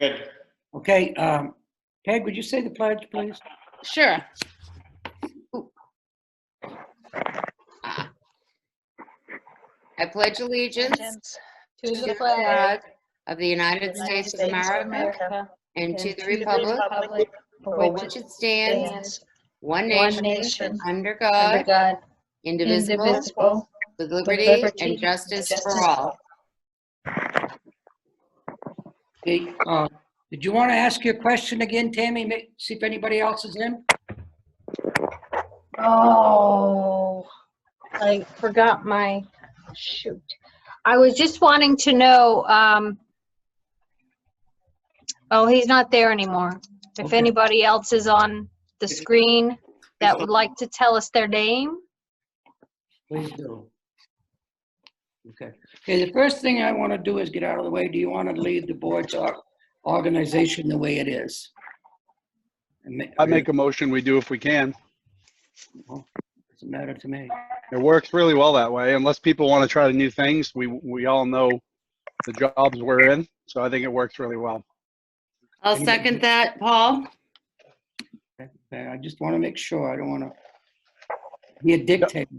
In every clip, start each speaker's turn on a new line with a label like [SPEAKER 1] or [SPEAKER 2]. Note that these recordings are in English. [SPEAKER 1] Good.
[SPEAKER 2] Okay, um, Peg, would you say the pledge, please?
[SPEAKER 3] Sure. Ooh. I pledge allegiance
[SPEAKER 4] To
[SPEAKER 3] to the
[SPEAKER 4] the
[SPEAKER 3] flag
[SPEAKER 4] flag
[SPEAKER 3] of the United States of America and to the republic for which it stands,
[SPEAKER 4] stands
[SPEAKER 3] one
[SPEAKER 4] one
[SPEAKER 3] nation,
[SPEAKER 4] nation,
[SPEAKER 3] under
[SPEAKER 4] under
[SPEAKER 3] God,
[SPEAKER 4] God,
[SPEAKER 3] indivisible,
[SPEAKER 4] indivisible,
[SPEAKER 3] with
[SPEAKER 4] with
[SPEAKER 3] liberty
[SPEAKER 4] liberty
[SPEAKER 3] and justice for
[SPEAKER 4] justice
[SPEAKER 3] all.
[SPEAKER 2] Okay, uh, Did you want to ask your question again, Tammy? Ma- See if anybody else is in?
[SPEAKER 4] Oh, I forgot my, shoot. I was just wanting to know, um, oh, he's not there anymore. If
[SPEAKER 2] Okay.
[SPEAKER 4] anybody else is on the screen that would like to tell us their name,
[SPEAKER 2] Please do. Okay, okay, the first thing I want to do is get out of the way. Do you want to leave the board's or- organization the way it is? And ma-
[SPEAKER 5] I make a motion, we do if we can.
[SPEAKER 2] Doesn't matter to me.
[SPEAKER 5] It works really well that way, unless people want to try new things. We, we all know the jobs we're in, so I think it works really well.
[SPEAKER 3] I'll second that, Paul.
[SPEAKER 2] Okay, I just want to make sure, I don't want to be a dictator.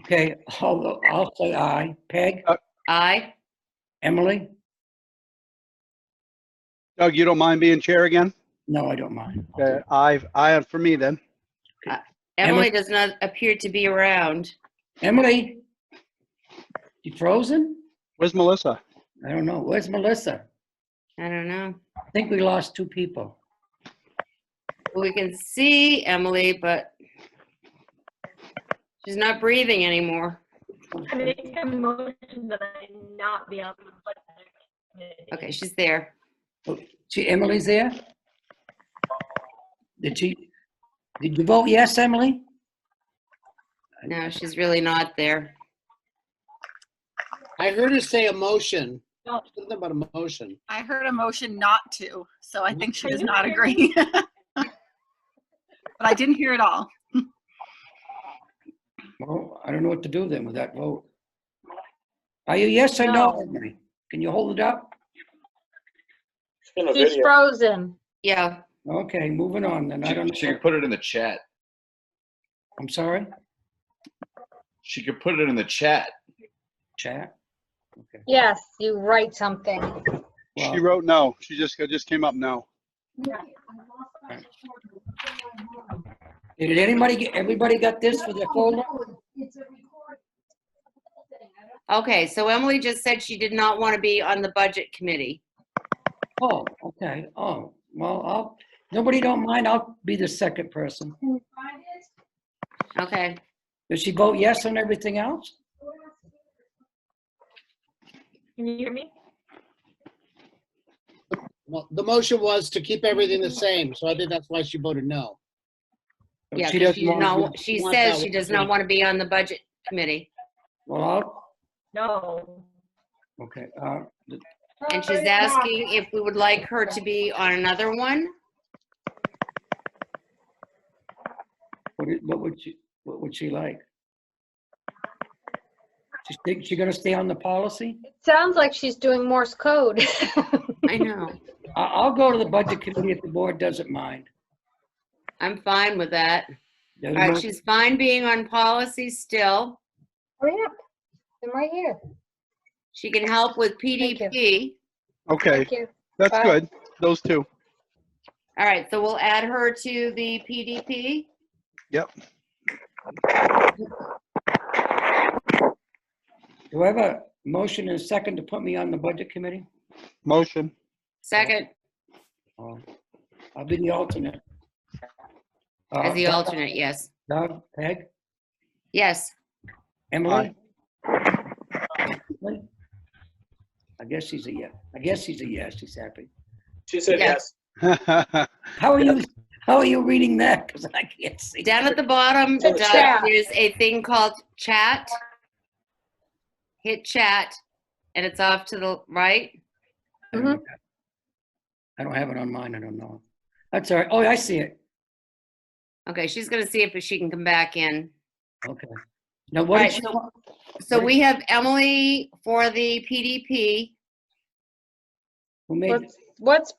[SPEAKER 2] Okay, I'll, I'll say aye. Peg,
[SPEAKER 3] Aye.
[SPEAKER 2] Emily?
[SPEAKER 5] Doug, you don't mind being chair again?
[SPEAKER 2] No, I don't mind. I'll do
[SPEAKER 5] Uh, I, I, for me then.
[SPEAKER 3] Emily does not appear to be around.
[SPEAKER 2] it. Emily? You frozen?
[SPEAKER 5] Where's Melissa?
[SPEAKER 2] I don't know. Where's Melissa?
[SPEAKER 3] I don't know.
[SPEAKER 2] I think we lost two people.
[SPEAKER 3] We can see Emily, but she's not breathing anymore.
[SPEAKER 6] I make a motion that I not be on the budget committee.
[SPEAKER 3] Okay, she's there.
[SPEAKER 2] She, Emily's there? Did she, did you vote yes, Emily?
[SPEAKER 3] No, she's really not there.
[SPEAKER 7] I heard her say a motion.
[SPEAKER 8] No.
[SPEAKER 7] Something about a motion.
[SPEAKER 8] I heard a motion not to, so I think she
[SPEAKER 6] Are
[SPEAKER 8] does
[SPEAKER 6] you
[SPEAKER 8] not
[SPEAKER 6] kidding?
[SPEAKER 8] agree. But I didn't hear it all.
[SPEAKER 2] Well, I don't know what to do then with that vote. Are you yes or no,
[SPEAKER 4] No.
[SPEAKER 2] Emily? Can you hold it up?
[SPEAKER 1] Still a
[SPEAKER 4] he's
[SPEAKER 1] video.
[SPEAKER 4] frozen.
[SPEAKER 3] Yeah,
[SPEAKER 2] Okay, moving on then. I don't
[SPEAKER 9] She, she
[SPEAKER 2] know.
[SPEAKER 9] could put it in the chat.
[SPEAKER 2] I'm sorry,
[SPEAKER 9] She could put it in the chat.
[SPEAKER 2] chat. Okay.
[SPEAKER 4] Yes, you write something.
[SPEAKER 5] She
[SPEAKER 2] Well,
[SPEAKER 5] wrote no. She just, it just came up no.
[SPEAKER 2] Did anybody, get everybody got this for their folder?
[SPEAKER 3] okay, so Emily just said she did not want to be on the budget committee.
[SPEAKER 2] Oh, okay, oh, well, I'll, nobody don't mind, I'll be the second person.
[SPEAKER 3] Okay,
[SPEAKER 2] Does she vote yes on everything else?
[SPEAKER 6] Can you hear me?
[SPEAKER 7] Well, the motion was to keep everything the same, so I think that's why she voted no.
[SPEAKER 3] yeah,
[SPEAKER 2] She
[SPEAKER 3] 'cause
[SPEAKER 2] doesn't
[SPEAKER 3] she did
[SPEAKER 2] want-
[SPEAKER 3] not, wa- she
[SPEAKER 7] want
[SPEAKER 3] says
[SPEAKER 7] that
[SPEAKER 3] she
[SPEAKER 7] one.
[SPEAKER 3] does not want to be on the budget committee,
[SPEAKER 2] Well, I'll,
[SPEAKER 6] No.
[SPEAKER 2] okay, uh, th-
[SPEAKER 3] and
[SPEAKER 6] Oh,
[SPEAKER 3] she's asking if we would like her to be on another one.
[SPEAKER 2] what, i- what would she, what would she like? She think she gonna stay on the policy?
[SPEAKER 4] It sounds like she's doing Morse code.
[SPEAKER 3] I know,
[SPEAKER 2] I, I'll go to the budget committee if the board doesn't mind.
[SPEAKER 3] I'm fine with that.
[SPEAKER 2] Doesn't
[SPEAKER 3] All right,
[SPEAKER 2] mind?
[SPEAKER 3] Uh, she's fine being on policy still.
[SPEAKER 4] Hurry up. I'm right here.
[SPEAKER 3] She can help with
[SPEAKER 4] you.
[SPEAKER 3] PDP.
[SPEAKER 5] Okay,
[SPEAKER 4] Thank you.
[SPEAKER 5] that's
[SPEAKER 4] Bye.
[SPEAKER 5] good. Those two.
[SPEAKER 3] All right, so we'll add her to the PDP.
[SPEAKER 2] Do I have a motion and a second to put me on the budget committee?
[SPEAKER 5] Motion.
[SPEAKER 3] Second,
[SPEAKER 2] Or I'll be the alternate. Uh,
[SPEAKER 3] as the
[SPEAKER 2] Doug-
[SPEAKER 3] alternate, yes.
[SPEAKER 2] Doug, Peg,
[SPEAKER 3] Yes,
[SPEAKER 2] Emily? Emily? I guess she's a yes. I guess she's a yes. She's happy.
[SPEAKER 1] She said
[SPEAKER 3] Yeah.
[SPEAKER 1] yes.
[SPEAKER 2] How are you, how are you reading that? Because I can't see.
[SPEAKER 3] down at the bottom,
[SPEAKER 4] So
[SPEAKER 3] Doug,
[SPEAKER 4] chat.
[SPEAKER 3] there's a thing called chat. Hit chat, and it's off to the right.
[SPEAKER 2] I
[SPEAKER 3] Mm-hmm.
[SPEAKER 2] don't have- I don't have it on mine. I don't know. That's all right. Oh, I see it.
[SPEAKER 3] Okay, she's gonna see if she can come back in.
[SPEAKER 2] Okay. Now, what did
[SPEAKER 3] Right,
[SPEAKER 2] she
[SPEAKER 3] so-
[SPEAKER 2] want?
[SPEAKER 3] So we have Emily for the PDP.
[SPEAKER 2] Who made,
[SPEAKER 4] Let's- what's